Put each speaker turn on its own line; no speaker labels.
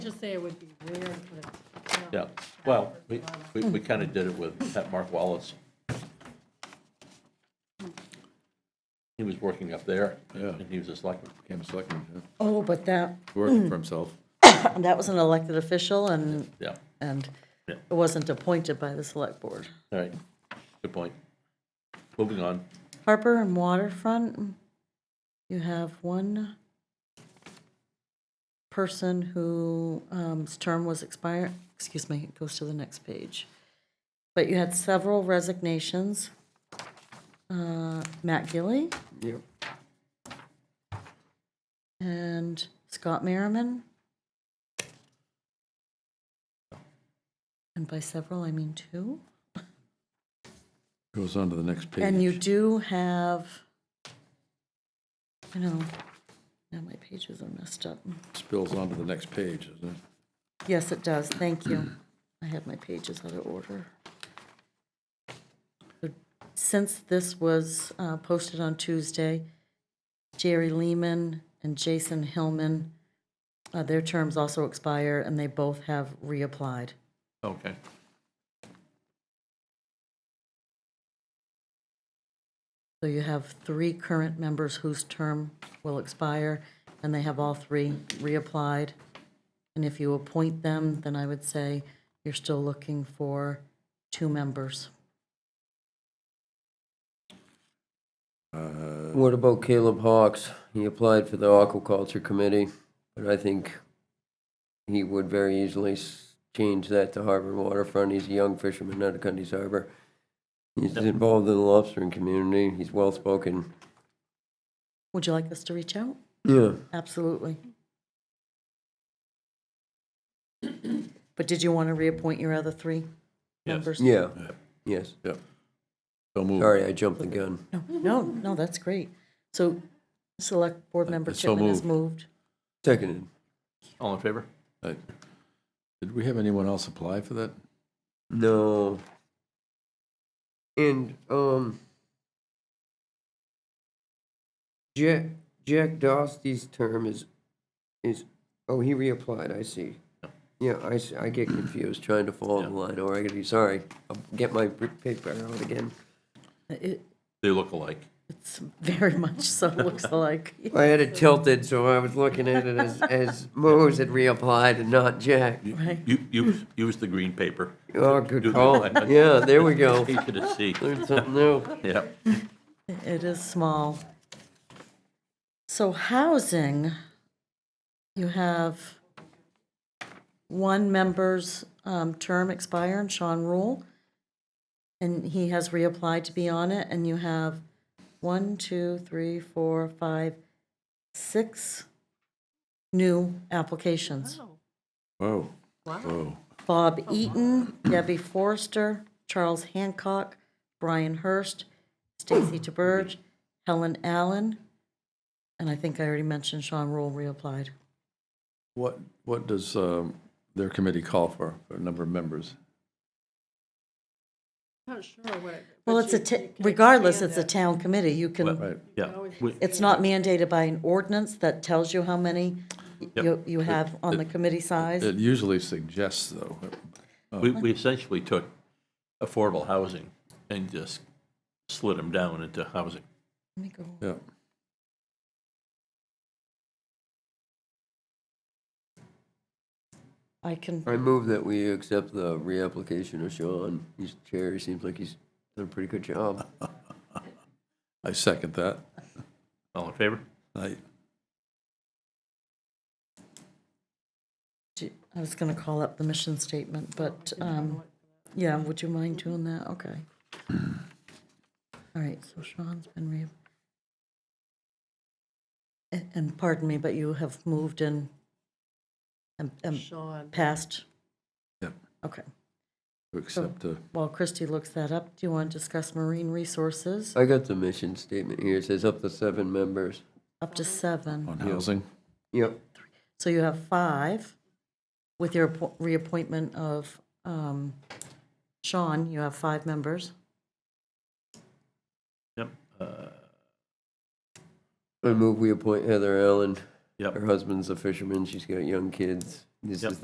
Just say it would be weird, but. you know,
Yeah, well, we, we, we kind of did it with Pat Mark Wallace. He was working up there.
Yeah.
And he was a selectman.
Became a selectman, yeah.
Oh, but that,
working for himself.
that was an elected official and,
Yeah,
and
Yeah.
it wasn't appointed by the select board.
all right, good point. Moving on,
Harper and Waterfront, you have one person who, um, his term was expired, excuse me, it goes to the next page. But you had several resignations. Uh, Matt Gilly
Yep.
and Scott Merriman. And by several, I mean two.
Goes on to the next page.
And you do have, I know, now my pages are messed up.
Spills on to the next page, doesn't it?
Yes, it does, thank you. I have my pages out of order. Since this was uh, posted on Tuesday, Jerry Lehman and Jason Hillman, uh, their terms also expire, and they both have reapplied.
okay.
So you have three current members whose term will expire, and they have all three reapplied. And if you appoint them, then I would say you're still looking for two members.
What about Caleb Hawks? He applied for the aquaculture committee, but I think he would very easily s- change that to harbor and waterfront. He's a young fisherman out of Cundy's Harbor. He's involved in the lobstering community. He's well-spoken.
Would you like us to reach out?
Yeah.
Absolutely. But did you want to reappoint your other three members?
Yeah, yes.
Yep. So moved.
Sorry, I jumped the gun.
No, No, no, that's great. So Select Board Member
So
Chipman has moved.
Seconded.
All in favor?
Right. Did we have anyone else apply for that?
No. And um, Jack Jack Dosty's term is is oh he reapplied. I see. Yeah, I, s- I get confused trying to follow the line. Or I gotta be sorry. I'll get my pr- paper out again.
It-
They look alike.
It's very much so, looks like.
I had it tilted, so I was looking at it as as Mose had reapplied and not Jack.
You-
Right.
You, you, use the green paper.
Oh,
Do
good
the
call.
line.
Yeah, there we go.
Easy to see,
Learned something new.
yeah.
It is small. So housing, you have one member's um, term expire, and Sean Rule, and he has reapplied to be on it, and you have one, two, three, four, five, six new applications.
Whoa. Whoa.
Oh,
Bob Eaton, Debbie Forrester, Charles Hancock, Brian Hurst, Stacy DeBurge, Helen Allen, and I think I already mentioned Sean Rule reapplied.
What, what does um, their committee call for, for a number of members?
I'm Not sure what. it-
Well,
but
it's a,
you-
ta-
you can
regardless,
expand
it's a
it.
town committee, you can,
Right.
Yeah, we-
it's not mandated by an ordinance that tells you how many you, you have on the committee size.
It usually suggests, though,
we, we essentially took affordable housing and just slid them down into housing.
Let me go.
yeah.
I can,
I move that we accept the reapplication of Sean. He's chair, he seems like he's done a pretty good job.
I second that.
All in favor?
I,
do- I was gonna call up the mission statement, but, um, yeah, would you mind doing that? Okay. All right, so Sean's been re. A- And pardon me, but you have moved in and, and
Sean,
passed?
Yep.
Okay,
to accept, uh,
while Christie looks that up, do you want to discuss marine resources?
I got the mission statement here. It says up to seven members.
Up to seven.
on housing.
Yep.
So you have five. With your appo- reappointment of um, Sean, you have five members.
Yep, uh,
I move we appoint Heather Allen.
Yep.
Her husband's a fisherman. She's got young kids. This
Yep.
is